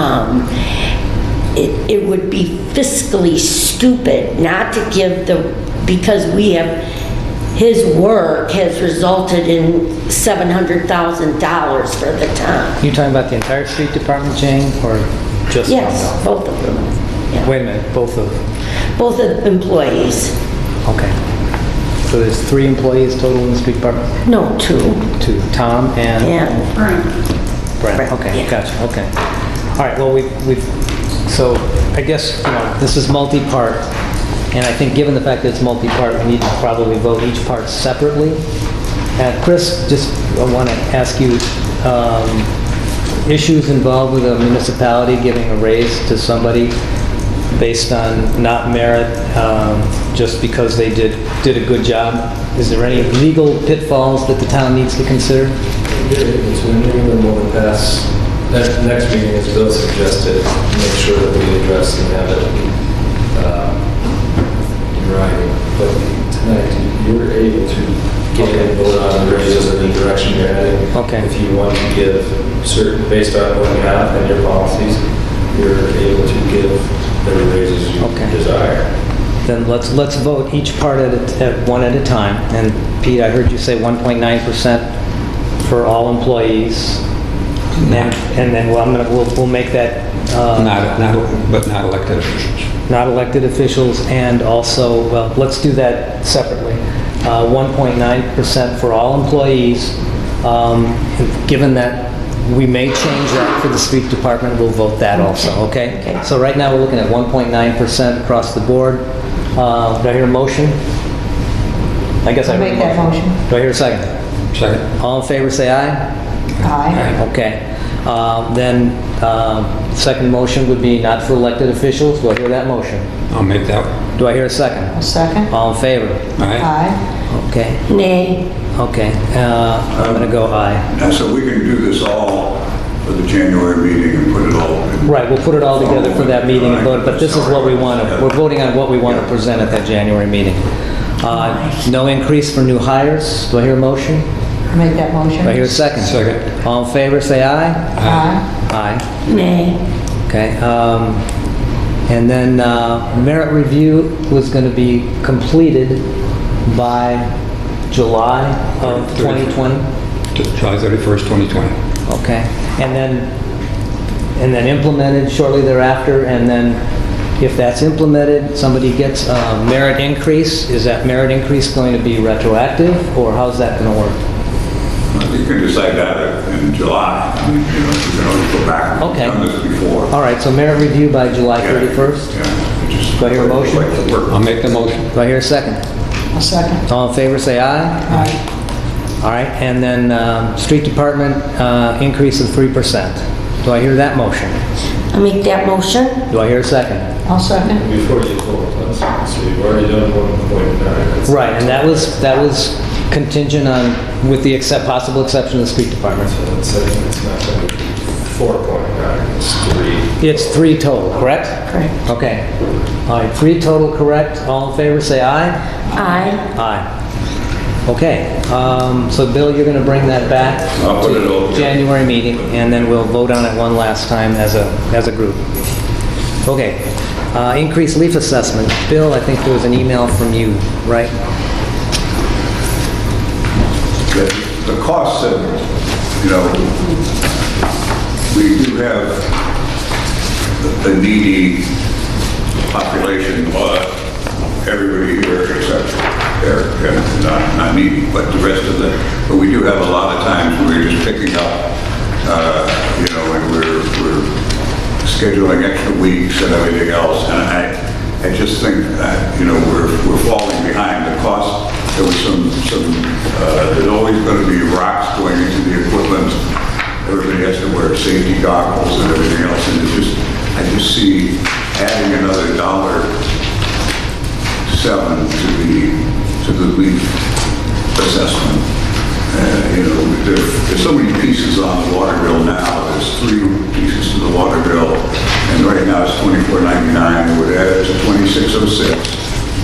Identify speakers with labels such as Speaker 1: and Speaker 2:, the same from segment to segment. Speaker 1: Um, It, it would be fiscally stupid not to give the, because we have, his work has resulted in $700,000 for the town.
Speaker 2: You talking about the entire street department, Jane, or just?
Speaker 1: Yes, both of them. Yeah.
Speaker 2: Wait a minute, both of,
Speaker 1: Both of the employees.
Speaker 2: okay. So there's three employees total in the street department?
Speaker 1: No, two.
Speaker 2: Two, Tom and?
Speaker 1: And
Speaker 2: Brent,
Speaker 1: Brent,
Speaker 2: okay,
Speaker 1: yeah.
Speaker 2: gotcha, okay. All right, well, we, we, so I guess, you know, this is multi-part, and I think given the fact that it's multi-part, we need to probably vote each part separately. And Chris, just want to ask you, um, issues involved with a municipality giving a raise to somebody based on not merit, um, just because they did, did a good job, is there any legal pitfalls that the town needs to consider?
Speaker 3: It's when New England will pass, next, next meeting, as Bill suggested, make sure that we address and have it uh, in writing. But tonight, you're able to get a vote on the raises and the direction you're heading.
Speaker 2: Okay.
Speaker 3: If you want to give certain, based on what you have and your policies, you're able to give the raises you
Speaker 2: Okay.
Speaker 3: desire.
Speaker 2: Then let's, let's vote each part at, a- at one at a time. And Pete, I heard you say 1.9% for all employees. And, and then, well, I'm gonna, we'll, we'll make that, uh,
Speaker 4: Not, not, but not elected officials.
Speaker 2: not elected officials and also, well, let's do that separately. Uh, 1.9% for all employees. Um, and Given that we may change that for the street department, we'll vote that also, okay? So right now, we're looking at 1.9% across the board. Uh, do I hear a motion? I guess I heard a
Speaker 5: Make that motion.
Speaker 2: Do I hear a second?
Speaker 4: Second.
Speaker 2: All in favor, say aye.
Speaker 5: Aye.
Speaker 2: Okay. Uh, Then, um, second motion would be not for elected officials. Do I hear that motion?
Speaker 4: I'll make that.
Speaker 2: Do I hear a second?
Speaker 5: Second?
Speaker 2: All in favor?
Speaker 4: Aye.
Speaker 5: Aye.
Speaker 2: Okay,
Speaker 1: nay.
Speaker 2: okay. Uh, I'm gonna go aye.
Speaker 6: And so we can do this all for the January meeting and put it all in.
Speaker 2: Right, we'll put it all together for that meeting and vote, but this is what we want to, we're voting on what we want to present at that January meeting. Uh, No increase for new hires. Do I hear a motion?
Speaker 5: Make that motion.
Speaker 2: Do I hear a second?
Speaker 4: Second.
Speaker 2: All in favor, say aye.
Speaker 5: Aye.
Speaker 2: Aye.
Speaker 1: Nay.
Speaker 2: Okay, um, and then, uh, merit review was gonna be completed by July of 2020?
Speaker 4: To July 31st, 2020.
Speaker 2: Okay, and then, and then implemented shortly thereafter, and then if that's implemented, somebody gets a merit increase, is that merit increase going to be retroactive, or how's that gonna work?
Speaker 6: You can decide that in July. I mean, you know, you can always go back. We've
Speaker 2: Okay.
Speaker 6: Done this before.
Speaker 2: All right, so merit review by July
Speaker 6: Yeah.
Speaker 2: 31st?
Speaker 6: Yeah. It's just-
Speaker 2: Do I hear a motion? Um,
Speaker 6: Like the work.
Speaker 4: I'll make the motion.
Speaker 2: Do I hear a second?
Speaker 5: A second.
Speaker 2: All in favor, say aye.
Speaker 5: Aye.
Speaker 2: All right, and then um, street department uh, increase of 3%. Do I hear that motion?
Speaker 1: I make that motion?
Speaker 2: Do I hear a second?
Speaker 5: I'll second.
Speaker 3: Before you vote, let's, so you've already done one point nine.
Speaker 2: Right, and that was, that was contingent on, with the except, possible exception of the street department.
Speaker 3: So it's, it's not going to be four point nine, it's three.
Speaker 2: It's three total, correct?
Speaker 5: Correct.
Speaker 2: Okay. All right, three total, correct? All in favor, say aye.
Speaker 1: Aye.
Speaker 2: Aye. Okay, um, so Bill, you're going to bring that back
Speaker 6: I'll put it
Speaker 2: to
Speaker 6: over.
Speaker 2: January meeting, and then we'll vote on it one last time as a, as a group. Okay, uh, increased leaf assessment. Bill, I think there was an email from you, right?
Speaker 6: The the costs that, you know, we do have a needy population, but everybody here except Eric, uh, not, not needy, but the rest of the, but we do have a lot of times where we're just picking up, uh, you know, and we're, we're scheduling extra weeks and everything else, and I, I just think that, you know, we're, we're falling behind the cost. There was some, some, uh, there's always going to be rocks going into the equipment. Everybody has to wear safety goggles and everything else, and it's just, I just see adding another dollar seven to the, to the leaf assessment. Uh, You know, there, there's so many pieces on the water bill now, there's three pieces to the water bill, and right now it's twenty-four ninety-nine, it would add it to twenty-six oh six,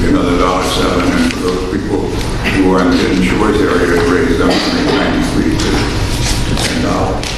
Speaker 6: be another dollar seven, and for those people who are in the insurance area, it raise them from ninety-three to to ten dollars.